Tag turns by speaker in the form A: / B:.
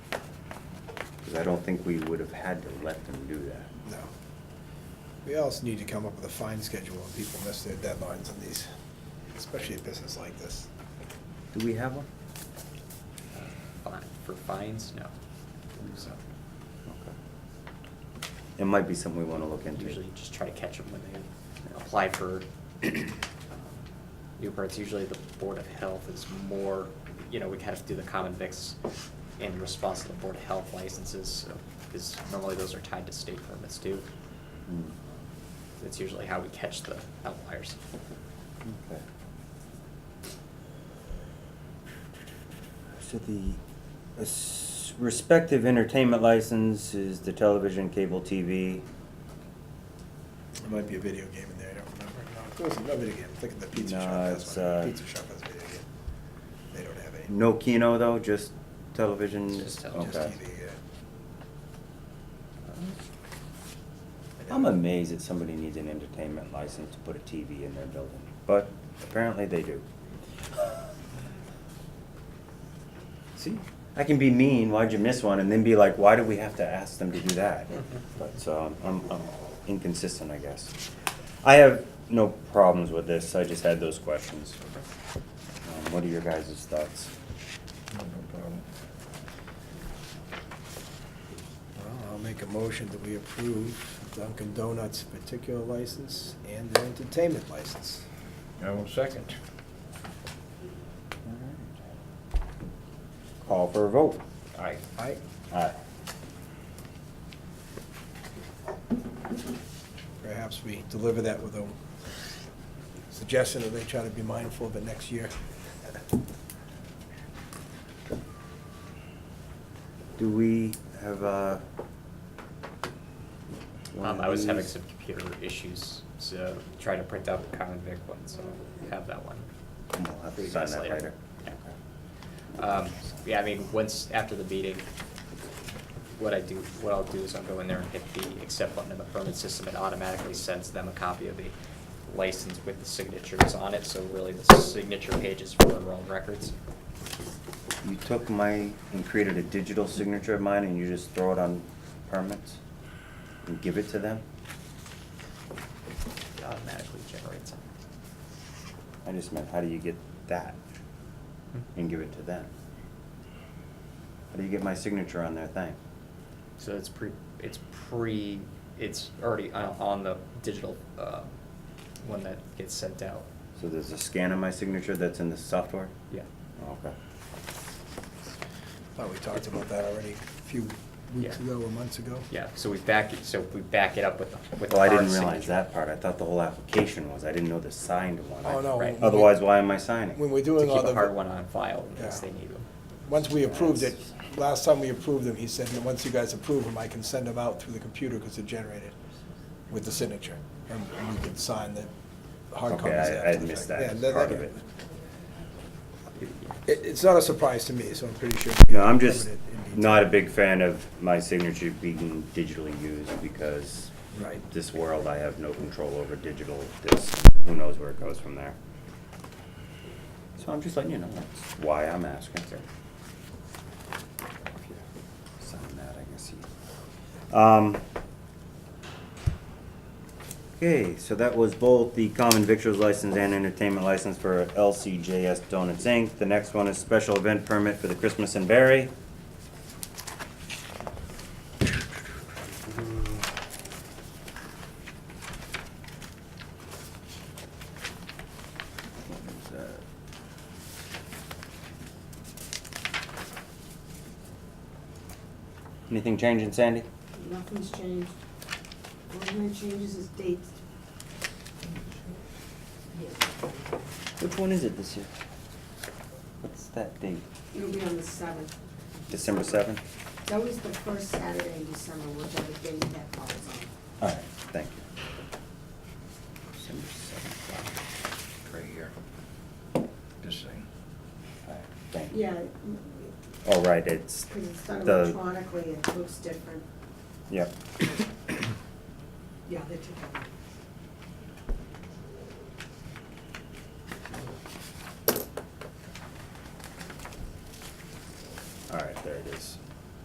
A: Because I don't think we would have had to let them do that.
B: No. We also need to come up with a fine schedule when people miss their deadlines on these, especially a business like this.
A: Do we have one?
C: Fine, uh, for fines, no. So
A: Okay. It might be something we want to look into.
C: usually just try to catch them when they apply for um, new permits. Usually the Board of Health is more, you know, we kind of do the common vics in response to the Board of Health licenses, because normally those are tied to state permits too.
A: Hmm.
C: That's usually how we catch the outliers.
A: Okay. So the uh, s- respective entertainment license is the television, cable TV.
B: There might be a video game in there, I don't remember. No, it wasn't, no video game, I'm thinking the pizza
A: No,
B: shop has
A: it's,
B: one.
A: uh,
B: Pizza shop has a video game. They don't have any.
A: No Kino though, just television?
C: Just television.
B: Just uh,
A: Okay.
B: TV, yeah.
C: Um,
A: I'm amazed that somebody needs an entertainment license to put a TV in their building, but apparently they do. See, I can be mean, why'd you miss one, and then be like, why do we have to ask them to do that? But, so, I'm, I'm inconsistent, I guess. I have no problems with this, I just had those questions. Um, What are your guys' thoughts?
B: Well, I'll make a motion that we approve Dunkin' Donuts particular license and their entertainment license.
D: I will second.
A: Call for a vote.
D: Aye.
B: Aye.
A: Aye.
B: Perhaps we deliver that with a suggestion that they try to be mindful of it next year.
A: Do we have, uh? one
C: Um,
A: of
C: I was having
A: these?
C: some computer issues, so trying to print out the common vic one, so I have that one.
A: We'll have to
C: for you
A: sign
C: guys
A: that later.
C: Yeah. Um, yeah, I mean, once, after the meeting, what I do, what I'll do is I'll go in there and hit the accept button in the permit system. It automatically sends them a copy of the license with the signatures on it, so really the signature page is for their own records.
A: You took my, and created a digital signature of mine and you just throw it on permits? And give it to them?
C: It automatically generates
A: I just meant, how do you get that
C: it.
A: and give it to them? How do you get my signature on their thing?
C: So it's pre, it's pre, it's already on, on the digital, uh, one that gets sent out.
A: So there's a scan of my signature that's in the software? Oh,
C: Yeah.
A: Okay.
B: Thought we talked about that already a few weeks
C: Yeah.
B: ago or months ago.
C: Yeah, so we back, it- so we back it up with, the- with.
A: Well, I
C: our
A: didn't realize
C: signature.
A: that part. I thought the whole application was. I didn't know the signed one.
B: Oh, no.
C: Right.
B: when we-
A: Otherwise, why am I signing?
B: When we're
C: To
B: doing all
C: keep
B: the.
C: a hard one on file in case
B: Yeah.
C: they need them.
B: Once we approved it, last time we approved them, he said, "And once you guys approve them, I can send them out through the computer because they're generated with the signature. And we can sign the hard
A: Okay,
B: copies
A: I-
B: after
A: I
B: the fact.
A: missed
B: Yeah,
A: that
B: that-
A: part
B: that-
A: of it.
B: It, it's not a surprise to me, so I'm pretty sure.
A: No, I'm just
B: covered it in detail.
A: not a big fan of my signature being digitally used because
B: Right.
A: this world, I have no control over digital, this, who knows where it goes from there. So I'm just letting you know, that's why I'm asking. Sign that, I guess you. Um, Okay, so that was both the common victuals license and entertainment license for LCJS Donuts Inc. The next one is special event permit for the Christmas and Berry. What was that? Anything changing, Sandy?
E: Nothing's changed. Only thing changes is dates.
A: Which one is it this year? What's that date?
E: It'll be on the seventh.
A: December seventh?
E: It's always the first Saturday in December, whichever date that falls on.
A: All right, thank you. December seventh,
D: Right here. This thing.
A: all right, thank you.
E: Yeah,
A: All right, it's
E: because it's done
A: the,
E: electronically, it looks different.
A: yep.
E: Yeah, they took it.